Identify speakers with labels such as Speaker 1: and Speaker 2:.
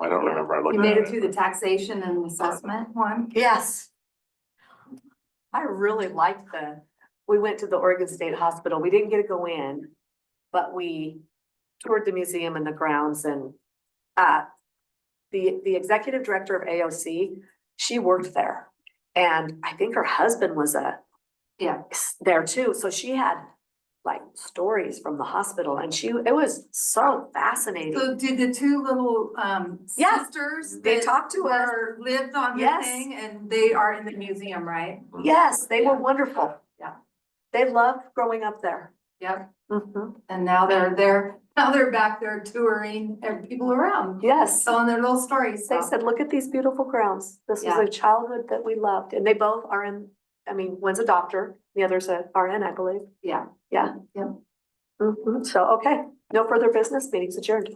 Speaker 1: I don't remember. I
Speaker 2: You
Speaker 1: looked
Speaker 2: made
Speaker 1: at
Speaker 2: it
Speaker 1: it.
Speaker 2: through the taxation and assessment one?
Speaker 3: Yes. I really liked the, we went to the Oregon State Hospital. We didn't get to go in, but we toured the museum and the grounds and uh the the executive director of AOC, she worked there. And I think her husband was a
Speaker 2: Yeah.
Speaker 3: there too, so she had like stories from the hospital and she, it was so fascinating.
Speaker 2: So did the two little um
Speaker 3: Yeah,
Speaker 2: sisters?
Speaker 3: they
Speaker 2: that
Speaker 3: talked to us.
Speaker 2: were- Lived on the
Speaker 3: Yes.
Speaker 2: thing and they are in the museum, right?
Speaker 1: Mm-hmm.
Speaker 3: Yes, they were wonderful.
Speaker 2: Yeah.
Speaker 3: They loved growing up there.
Speaker 2: Yep,
Speaker 3: Mhm.
Speaker 2: and now they're there, now they're back there touring and people around,
Speaker 3: Yes.
Speaker 2: telling their little stories.
Speaker 3: They
Speaker 2: so-
Speaker 3: said, look at these beautiful grounds. This was
Speaker 2: Yeah.
Speaker 3: a childhood that we loved. And they both are in, I mean, one's a doctor, the other's a RN, I believe.
Speaker 2: Yeah.
Speaker 3: Yeah. Mm-hmm.
Speaker 2: Yeah.
Speaker 3: Mhm. So, okay, no further business, meeting's adjourned.